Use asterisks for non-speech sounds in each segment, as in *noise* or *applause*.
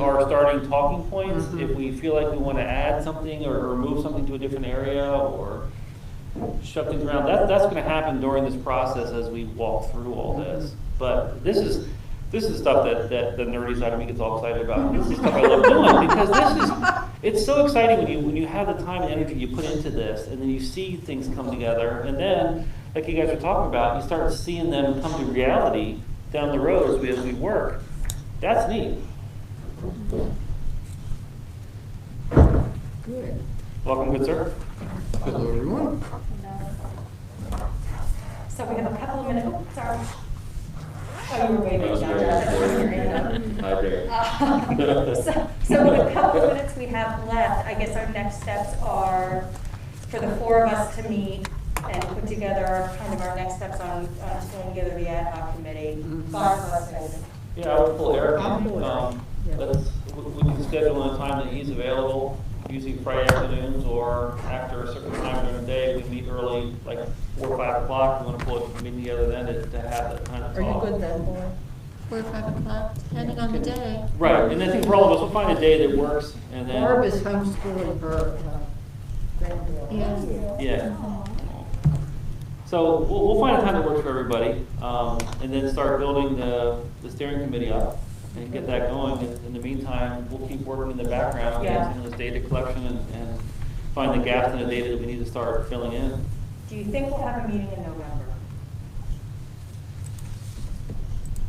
our starting talking points, if we feel like we want to add something or remove something to a different area or shut things around, that, that's going to happen during this process as we walk through all this. But this is, this is stuff that, that the nerdy side of me gets all excited about. This is stuff I love doing because this is, it's so exciting when you, when you have the time and energy you put into this and then you see things come together. And then, like you guys were talking about, you start seeing them come to reality down the road as we, as we work. That's neat. Good. Welcome, good sir. Hello, everyone. So we have a couple of minutes, oh, sorry. Oh, you were I waving was down. very there. Hi there. Uh, So so with a couple of minutes we have left, I guess our next steps are for the four of us to meet and put together kind of our next steps on, on pulling together the ad hoc committee. Five of us, I Yeah, I would pull Eric. I'll pull Eric, Um, yeah. Let's, we we can schedule a time that he's available, usually Friday afternoons or after a certain time during the day. We meet early, like four, or five o'clock. We want to pull a meeting together then to to have that kind of Are you talk. good then, boy? Four or five o'clock, depending on the day. Right, and I think for all of us, we'll find a day that works and then. Barb is homeschooling her uh, granddaughter. Yeah. Yeah. So we'll, we'll find a time that works for everybody, um, and then start building the, the steering committee up and get that going. In, in the meantime, we'll keep working in the background, Yeah. on some of this data collection and, and find the gaps in the data that we need to start filling in. Do you think we'll have a meeting in November?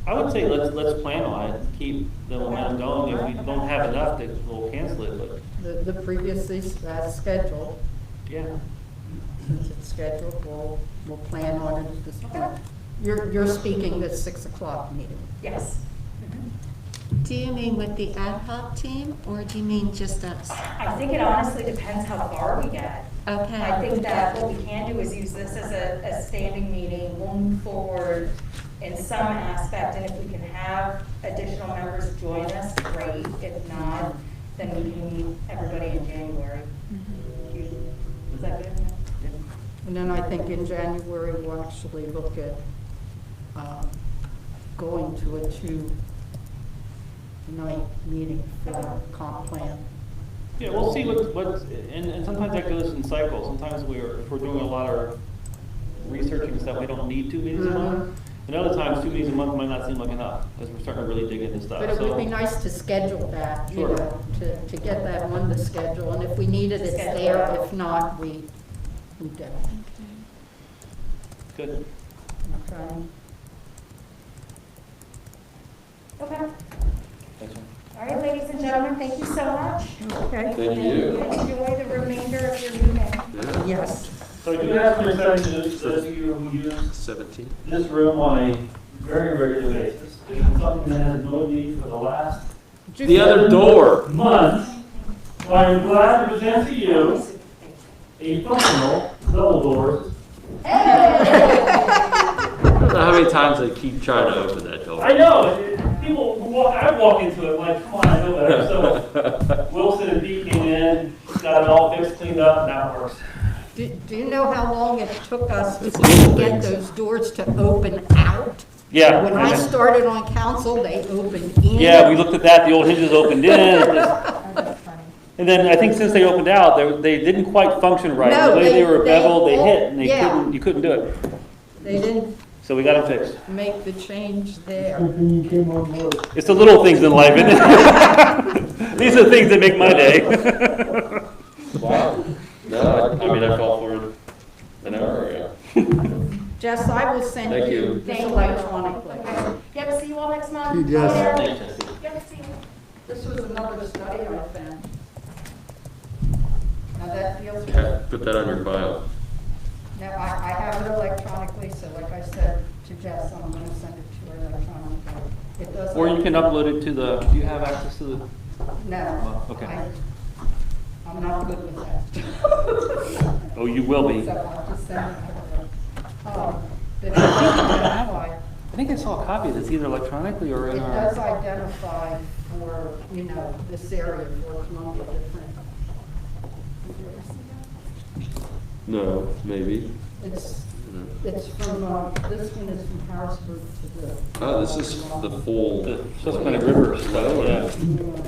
I would say let's, let's plan on it, keep the momentum going. If we don't have enough, then we'll cancel it, but, The, the previously s- uh, scheduled, yeah. since it's scheduled, we'll, we'll plan on it at this point. You're, you're speaking this six o'clock meeting. Yes. Do you mean with the ad hoc team, or do you mean just us? I think it honestly depends how far we get. Okay. I think that what we can do is use this as a, a standing meeting, we'll move forward in some aspect, and if we can have additional members join us, great. If not, then we can meet everybody in January. You- Mm-hmm. Is that good enough? And then I think in January, we'll actually look at um, going to a two-night meeting for comp plan. Yeah, we'll see what, what, and, and sometimes that goes in cycles. Sometimes we're, if we're doing a lot of researching stuff, we don't need two meetings a month. Mm-hmm. And other times, two meetings a month might not seem like enough, as we're starting to really dig into stuff. But it would be So- nice to schedule that, you Sure. know, to, to get that on the schedule, and if we need it, it's there, if not, we, we don't, Good. okay? Okay, all Thanks, man. right, ladies and gentlemen, thank you so much. Okay. Thank you. Enjoy the remainder of your meeting. Yeah. Yes. So I do have some exceptions, those of you who use Seventeen. this room on a very regular basis. It's something that has annoyed me for the last The other door. month. So I'm glad to present to you a functional double doors. I don't know how many times I keep trying to open that door. I know, it- it- people, walk. I walk into it like, come on, I know better. So *laughs* Wilson and Dee came in, got it all fixed, cleaned up, and now it works. Do, do you know how long it took us to It's little get things. those doors to open out? Yeah. When I started on council, they opened in. Yeah, we looked at that, the old hinges opened *laughs* in. And then I think since they opened out, they, they didn't quite function right. No, The way they- they were they- beveled, they hit, and they yeah. couldn't, you couldn't do it. They didn't So we got them fixed. make the change there. When you came on board, It's the little things in life, isn't it? *laughs* These are the things that make my day. Wow. No, I I mean, I fell forward an hour ago. Jess, I will send Thank you you. this electronically. Okay. Yep, see you all next month. See you, Jess. Bye, Eric. Yep, see you. This was another study I found. Now that feels good. Yeah, Put that on your file. No, I, I have it electronically, so like I said to Jess, I'm gonna send it to her electronically. It *laughs* doesn't. Or you can upload it to the, do you have access to the? No. Okay. I- I'm not good with that. Oh, you will be. So I'll just send it to her. Um, But it does identify, I think I saw a copy that's either electronically or it in does our. identify for, you know, this area for Columbia different. No, maybe. It's, it's from, uh, this one is from Harrisburg to the. Oh, Uh, this is the full. The Susquehanna River stuff, yeah. Yeah.